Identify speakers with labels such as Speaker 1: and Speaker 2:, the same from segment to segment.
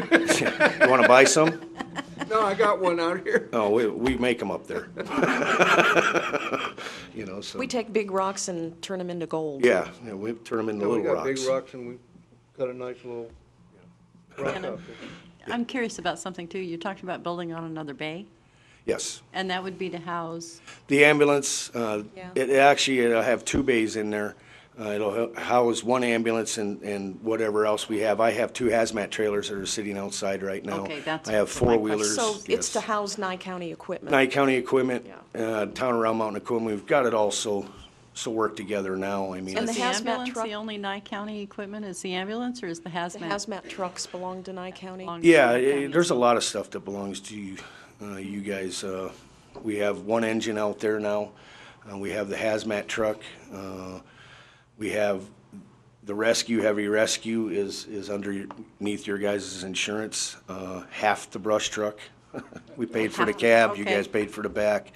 Speaker 1: You want to buy some?
Speaker 2: No, I got one out here.
Speaker 1: Oh, we, we make them up there. You know, so,
Speaker 3: We take big rocks and turn them into gold.
Speaker 1: yeah, yeah, we turn them into
Speaker 2: We
Speaker 1: little
Speaker 2: got big
Speaker 1: rocks.
Speaker 2: rocks and we cut a nice little rock
Speaker 4: And a-
Speaker 2: out
Speaker 4: I'm curious about something too. You talked about building on another bay,
Speaker 1: Yes.
Speaker 4: and that would be to house,
Speaker 1: The ambulance, uh,
Speaker 3: Yeah.
Speaker 1: it actually, it'll have two bays in there. Uh, It'll h- house one ambulance and, and whatever else we have. I have two hazmat trailers that are sitting outside right now.
Speaker 4: Okay, that's
Speaker 1: I have
Speaker 4: what my
Speaker 1: four-wheelers.
Speaker 3: So it's to
Speaker 1: yes.
Speaker 3: house Nye County equipment.
Speaker 1: Nye County equipment, uh, town around Mountain Equipment, we've got it all so, so worked together now. I mean,
Speaker 3: And the
Speaker 4: is
Speaker 1: it's-
Speaker 3: hazmat
Speaker 4: the ambulance
Speaker 3: truck-
Speaker 4: the only Nye County equipment? Is the ambulance or is the
Speaker 3: The
Speaker 4: hazmat?
Speaker 3: hazmat trucks belong to Nye County.
Speaker 4: belong to
Speaker 1: yeah,
Speaker 4: Nye
Speaker 1: eh,
Speaker 4: County?
Speaker 1: there's a lot of stuff that belongs to you, uh, you guys. Uh, We have one engine out there now. Uh, We have the hazmat truck. Uh, We have the rescue, heavy rescue is, is underneath your guys' insurance, uh, half the brush truck. We paid for the
Speaker 4: Half,
Speaker 1: cab, you
Speaker 4: okay.
Speaker 1: guys paid for the back.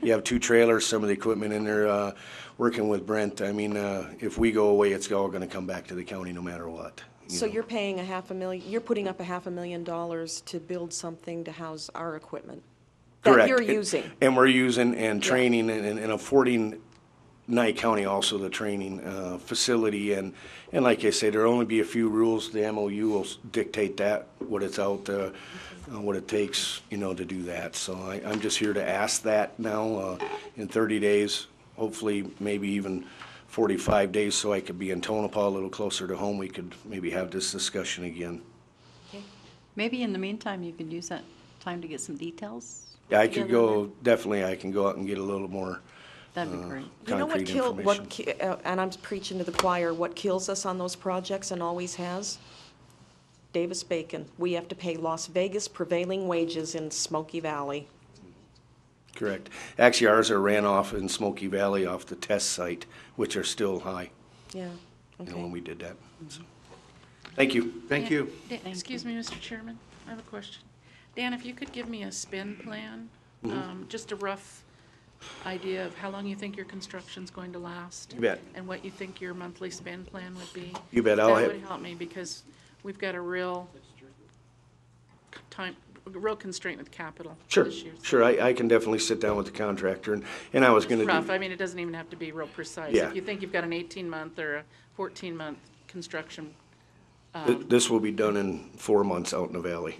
Speaker 1: You have two trailers, some of the equipment in there, uh, working with Brent. I mean, uh, if we go away, it's all gonna come back to the county no matter what. you
Speaker 3: So
Speaker 1: know.
Speaker 3: you're paying a half a million, you're putting up a half a million dollars to build something to house our equipment that
Speaker 1: Correct.
Speaker 3: you're
Speaker 1: And-
Speaker 3: using.
Speaker 1: And we're using and training and, and- and affording Nye County also the training, uh, facility and, and like I say, there'll only be a few rules. The MOU will s- dictate that, what it's out, uh, uh, what it takes, you know, to do that. So I, I'm just here to ask that now, uh, in thirty days, hopefully maybe even forty-five days so I could be in Tonopah a little closer to home. We could maybe have this discussion again.
Speaker 4: Maybe in the meantime, you could use that time to get some details.
Speaker 1: Yeah, I could
Speaker 4: together.
Speaker 1: go, definitely I can go out and get a little more
Speaker 4: That'd
Speaker 1: Uh,
Speaker 4: be great.
Speaker 3: You know what
Speaker 1: concrete
Speaker 3: kill,
Speaker 1: information.
Speaker 3: what, ki- uh, and I'm preaching to the choir, what kills us on those projects and always has? Davis Bacon. We have to pay Las Vegas prevailing wages in Smoky Valley.
Speaker 1: Correct. Actually, ours are ran off in Smoky Valley off the test site, which are still high,
Speaker 3: Yeah,
Speaker 1: you know, when
Speaker 3: okay.
Speaker 1: we did that. So, Thank you.
Speaker 2: Thank you.
Speaker 5: Dan- Excuse me, Mr. Chairman, I have a question. Dan, if you could give me a spin plan,
Speaker 1: Mm-hmm.
Speaker 5: um, just a rough idea of how long you think your construction's going to last?
Speaker 1: You bet.
Speaker 5: And what you think your monthly spend plan would be?
Speaker 1: You bet, I'll
Speaker 5: That
Speaker 1: have-
Speaker 5: would help me, because we've got a real c- time, a real constraint with capital
Speaker 1: Sure,
Speaker 5: this year, so
Speaker 1: sure. I, I can definitely sit down with the contractor and, and I was
Speaker 5: Just
Speaker 1: gonna
Speaker 5: rough, I
Speaker 1: do,
Speaker 5: mean, it doesn't even have to be real precise.
Speaker 1: Yeah.
Speaker 5: If you think you've got an 18-month or a 14-month construction,
Speaker 1: th- this will be done in four months out in the valley.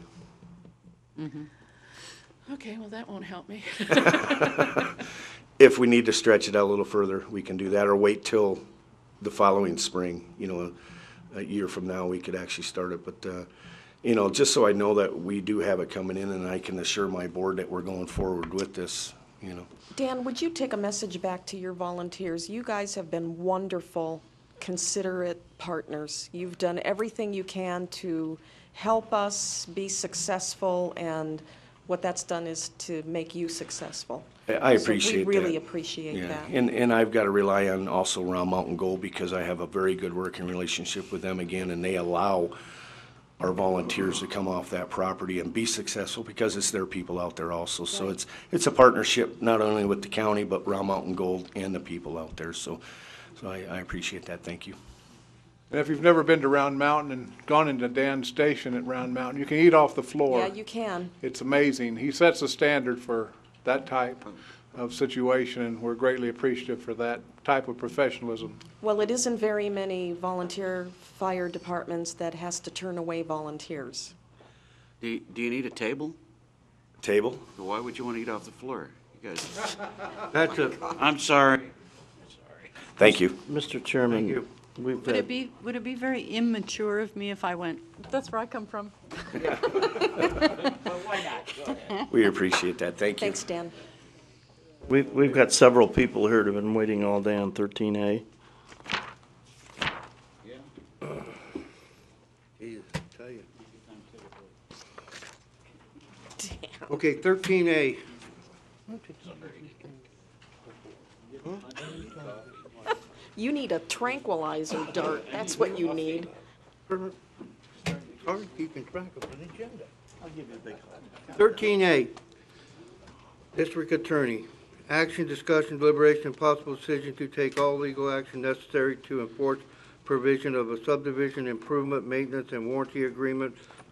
Speaker 5: okay, well, that won't help me.
Speaker 1: If we need to stretch it out a little further, we can do that or wait till the following spring, you know, a year from now, we could actually start it. But, uh, you know, just so I know that we do have it coming in and I can assure my board that we're going forward with this, you know.
Speaker 3: Dan, would you take a message back to your volunteers? You guys have been wonderful, considerate partners. You've done everything you can to help us be successful, and what that's done is to make you successful.
Speaker 1: I- I
Speaker 3: So
Speaker 1: appreciate
Speaker 3: We really
Speaker 1: that.
Speaker 3: appreciate
Speaker 1: Yeah,
Speaker 3: that.
Speaker 1: and, and I've got to rely on also Round Mountain Gold because I have a very good working relationship with them again, and they allow our volunteers to come off that property and be successful because it's their people out there also. So it's, it's a partnership, not only with the county, but Round Mountain Gold and the people out there. So, so I, I appreciate that. Thank you.
Speaker 6: And if you've never been to Round Mountain and gone into Dan's station at Round Mountain, you can eat off the floor.
Speaker 3: Yeah, you can.
Speaker 6: It's amazing. He sets a standard for that type of situation, and we're greatly appreciative for that type of professionalism.
Speaker 3: Well, it isn't very many volunteer fire departments that has to turn away volunteers.
Speaker 7: Do you, do you need a table?
Speaker 1: Table?
Speaker 7: Why would you want to eat off the floor? You guys,
Speaker 2: That's a,
Speaker 7: I'm sorry.
Speaker 1: Thank you.
Speaker 8: Mr. Chairman, we've
Speaker 4: Would it
Speaker 8: had,
Speaker 4: be, would it be very immature of me if I went, that's where I come from?
Speaker 1: We appreciate that. Thank you.
Speaker 3: Thanks, Dan.
Speaker 8: we've, we've got several people here that have been waiting all day on thirteen A.
Speaker 2: tell you. Okay, thirteen A.
Speaker 3: You need a tranquilizer dart, that's what you need.
Speaker 2: Hard keeping track of an agenda. Thirteen A, District Attorney, action, discussion, deliberation, and possible decision to take all legal action necessary to enforce provision of a subdivision improvement, maintenance, and warranty agreement